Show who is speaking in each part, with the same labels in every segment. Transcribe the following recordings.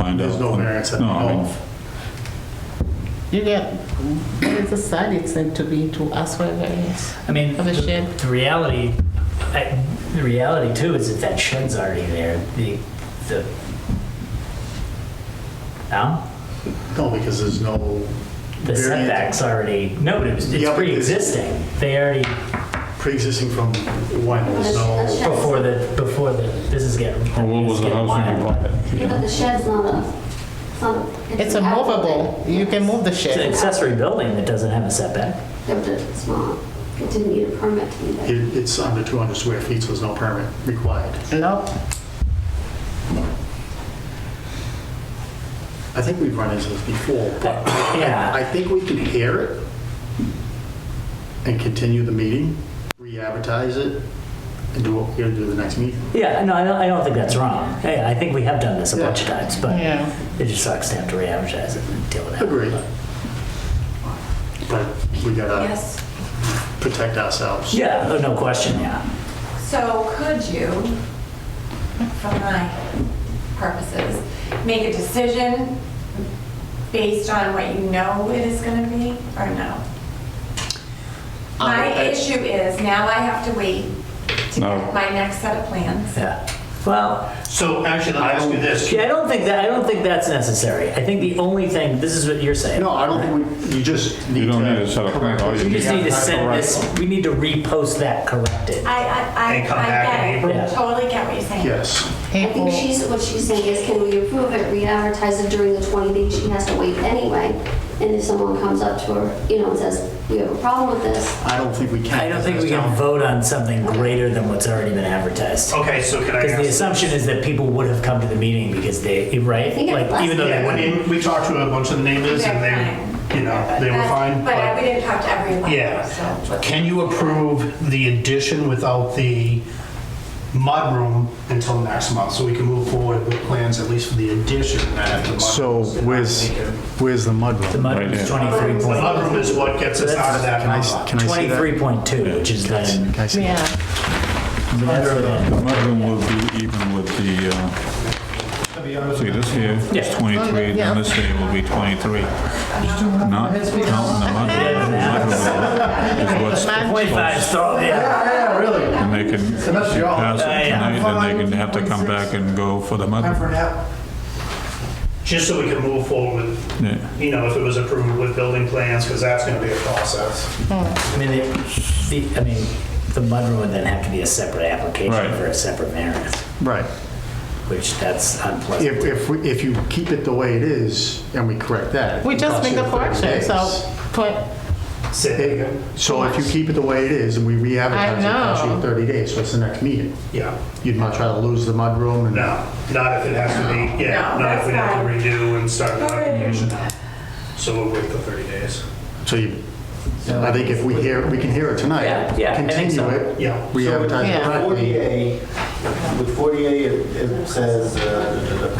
Speaker 1: find out.
Speaker 2: There's no variance
Speaker 1: No, I mean,
Speaker 2: involved.
Speaker 3: You get, what is the side extent to be to ask for a variance?
Speaker 4: I mean,
Speaker 3: Of a
Speaker 4: the-
Speaker 3: shed.
Speaker 4: The reality, I- the reality too is that that shed's already there. The, the, no?
Speaker 2: No, because there's no
Speaker 4: The
Speaker 2: variance
Speaker 4: setback's already, no, it's
Speaker 2: Yeah,
Speaker 4: it's
Speaker 2: but it's-
Speaker 4: pre-existing. They already,
Speaker 2: pre-existing from when there's
Speaker 5: That's-
Speaker 2: no,
Speaker 5: that's-
Speaker 4: before the, before the, this is getting.
Speaker 1: Or what was
Speaker 4: it's
Speaker 1: the
Speaker 4: getting
Speaker 1: house when you
Speaker 4: wild.
Speaker 1: bought it? you
Speaker 5: Yeah, but
Speaker 1: know?
Speaker 5: the shed's not a, it's not a.
Speaker 3: It's a
Speaker 5: an
Speaker 3: movable,
Speaker 5: outbuilding.
Speaker 3: you can move the
Speaker 4: It's an
Speaker 3: shed.
Speaker 4: accessory building that doesn't have a setback.
Speaker 5: Yeah, but It's not, it didn't need a permit to be
Speaker 2: it-
Speaker 5: there.
Speaker 2: it's under 200 square feet, so there's no permit required.
Speaker 3: No,
Speaker 2: I think we've run into this before, but
Speaker 4: Yeah.
Speaker 2: I think we can air it and continue the meeting, re-advertise it, and do what we're gonna do the next meeting.
Speaker 4: Yeah, no, I don't, I don't think that's wrong. Hey, I think we have done this a bunch of times, but
Speaker 3: Yeah.
Speaker 4: it just sucks to have to re-advertise it and deal with that.
Speaker 2: Agreed. But we gotta
Speaker 6: Yes,
Speaker 2: protect ourselves.
Speaker 4: Yeah, oh, no question, yeah.
Speaker 6: so could you, for my purposes, make a decision based on what you know it is gonna be, or no? My
Speaker 2: I-
Speaker 6: issue is now I have to wait to
Speaker 1: No.
Speaker 6: get my next set of plans.
Speaker 4: Yeah. Well,
Speaker 2: So actually, let me ask you this.
Speaker 4: Yeah, I don't think that, I don't think that's necessary. I think the only thing, this is what you're saying.
Speaker 2: No, I don't think we, you just need to.
Speaker 1: You don't need to set up-
Speaker 2: correct what
Speaker 1: all you
Speaker 4: We
Speaker 1: need-
Speaker 4: just need to
Speaker 1: Yeah,
Speaker 4: send
Speaker 1: correct.
Speaker 4: this, we need to repost that corrected.
Speaker 6: I, I, I,
Speaker 7: And come
Speaker 6: I
Speaker 7: back in
Speaker 6: get
Speaker 4: April?
Speaker 6: it, totally get what you're saying.
Speaker 2: Yes.
Speaker 5: I
Speaker 3: people,
Speaker 5: think she's, what she's saying is, can we approve it, re-advertise it during the 20 days she has to wait anyway? And if someone comes up to her, you know, and says, we have a problem with this,
Speaker 2: I don't think we can.
Speaker 4: I don't think we can vote on something greater than what's already been advertised.
Speaker 7: Okay, so can I
Speaker 4: Because the
Speaker 7: ask?
Speaker 4: assumption is that people would have come to the meeting because they, right?
Speaker 5: think it
Speaker 4: Like,
Speaker 5: was.
Speaker 4: even though they
Speaker 7: Yeah, I
Speaker 4: wouldn't.
Speaker 7: mean, we talked to a bunch of the neighbors and they, you know, they were
Speaker 6: That's-
Speaker 7: fine,
Speaker 6: But I- we
Speaker 7: but,
Speaker 6: didn't talk to everyone.
Speaker 7: yeah.
Speaker 6: so-
Speaker 7: Can you approve the addition without the mudroom until next month? So we can move forward with plans, at least for the addition, and then if the
Speaker 2: So
Speaker 7: mudroom.
Speaker 2: where's, where's the
Speaker 4: The
Speaker 2: mudroom?
Speaker 4: mud
Speaker 1: Right,
Speaker 4: was
Speaker 1: yeah.
Speaker 7: The
Speaker 4: 23 point,
Speaker 7: mudroom is what gets us out of that
Speaker 2: Can I, s-
Speaker 7: number.
Speaker 2: can I see that?
Speaker 4: 23.2, which is then,
Speaker 2: Can I see that?
Speaker 3: yeah.
Speaker 4: I mean, that's what
Speaker 1: The
Speaker 4: it-
Speaker 1: mudroom will be even with the, uh,
Speaker 7: To be honest
Speaker 1: see
Speaker 7: with you,
Speaker 1: this here is
Speaker 4: Yeah.
Speaker 1: 23,
Speaker 3: Yeah.
Speaker 1: then this here will be 23. Not counting the mudroom. The mudroom is what's
Speaker 3: Man-
Speaker 4: 25, so, yeah.
Speaker 7: Yeah, really.
Speaker 1: And they can, if they
Speaker 7: that's your-
Speaker 1: pass it
Speaker 4: Yeah, yeah.
Speaker 1: tonight, then they can have to come back and go for the
Speaker 7: Time
Speaker 1: mudroom.
Speaker 7: for a nap.
Speaker 2: Just so we can move forward with
Speaker 1: Yeah.
Speaker 7: You know, if it was approved with building plans, because that's going to be a process.
Speaker 4: I mean, the, the- I mean, the mudroom would then have to be a separate
Speaker 1: Right.
Speaker 4: application for a separate variance.
Speaker 2: Right.
Speaker 4: which that's unpleasant.
Speaker 2: If, if, we- if you keep it the way it is and we correct that.
Speaker 3: We
Speaker 2: it
Speaker 3: just
Speaker 2: costs
Speaker 3: make
Speaker 2: you
Speaker 3: a correction,
Speaker 2: 30
Speaker 3: so,
Speaker 2: days.
Speaker 3: twen-
Speaker 7: Sit
Speaker 2: Hey,
Speaker 7: there.
Speaker 2: So if you keep it the way it is and we re-advertise it, it costs
Speaker 3: I
Speaker 2: you
Speaker 3: know.
Speaker 2: 30 days, so it's the next meeting.
Speaker 7: Yeah.
Speaker 2: You'd much rather lose the mudroom and.
Speaker 7: No, not if it has to be, yeah,
Speaker 6: No,
Speaker 7: not if we
Speaker 6: that's
Speaker 7: have to
Speaker 6: fine.
Speaker 7: redo and start the
Speaker 6: All right.
Speaker 7: application. So we'll wait for 30 days.
Speaker 2: So you, I think if we hear, we can hear it tonight.
Speaker 4: Yeah, yeah, I think so.
Speaker 2: Continue it.
Speaker 7: Yeah.
Speaker 2: Re-advertise it
Speaker 3: Yeah.
Speaker 2: correctly.
Speaker 8: 48, with 48, it it says, uh,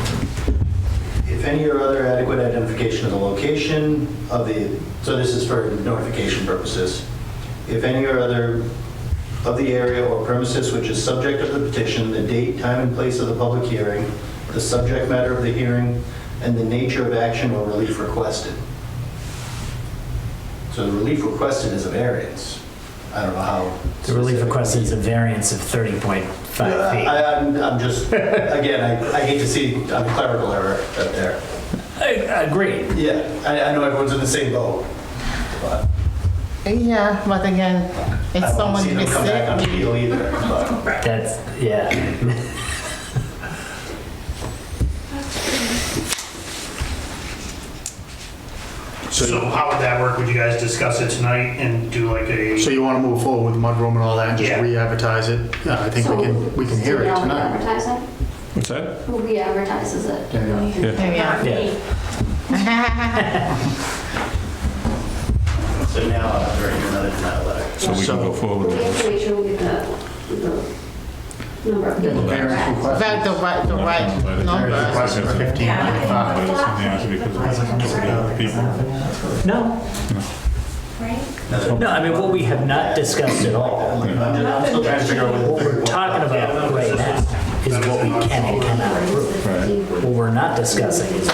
Speaker 8: if any or other adequate identification of the location of the, so this is for notification purposes, if any or other of the area or premises which is subject of the petition, the date, time, and place of the public hearing, the subject matter of the hearing, and the nature of action or relief requested. So the relief requested is a variance. I don't know how.
Speaker 4: The relief
Speaker 8: specific.
Speaker 4: request is a variance of 30.5 feet.
Speaker 8: I, I'm, I'm just, again, I, I hate to see a clerical error up there.
Speaker 4: Agreed.
Speaker 8: Yeah, I, I know everyone's in the same boat, but
Speaker 3: yeah, but again, if
Speaker 8: I don't
Speaker 3: someone
Speaker 8: see them
Speaker 3: is
Speaker 8: come back on
Speaker 3: sick,
Speaker 8: appeal either, but.
Speaker 4: That's, yeah.
Speaker 7: So how would that work? Would you guys discuss it tonight and do like a?
Speaker 2: So you want to move forward with mudroom and all that and just
Speaker 7: Yeah.
Speaker 2: re-advertise it? Yeah, I think we can, we can hear it tonight.
Speaker 5: Advertise it?
Speaker 1: What's that?
Speaker 5: Who re-advertises it?
Speaker 1: Yeah.
Speaker 3: yeah.
Speaker 6: Not me.
Speaker 8: So now I'm writing another denial letter.
Speaker 1: So we can go forward
Speaker 5: We
Speaker 1: with
Speaker 5: have
Speaker 1: this.
Speaker 5: to make sure we get the, the number of people.
Speaker 2: Parents
Speaker 5: correct.
Speaker 2: request-
Speaker 3: that the right, the right number.
Speaker 2: request for 15.
Speaker 6: Yeah.
Speaker 1: But it's in the answer because it's the people.
Speaker 4: No,
Speaker 6: Right?
Speaker 4: no, I mean, what we have not discussed at all,
Speaker 8: I'm just- I'm still trying to figure out what.
Speaker 4: what we're talking about right now, is what we can and cannot approve.
Speaker 1: Right.
Speaker 4: What we're not discussing is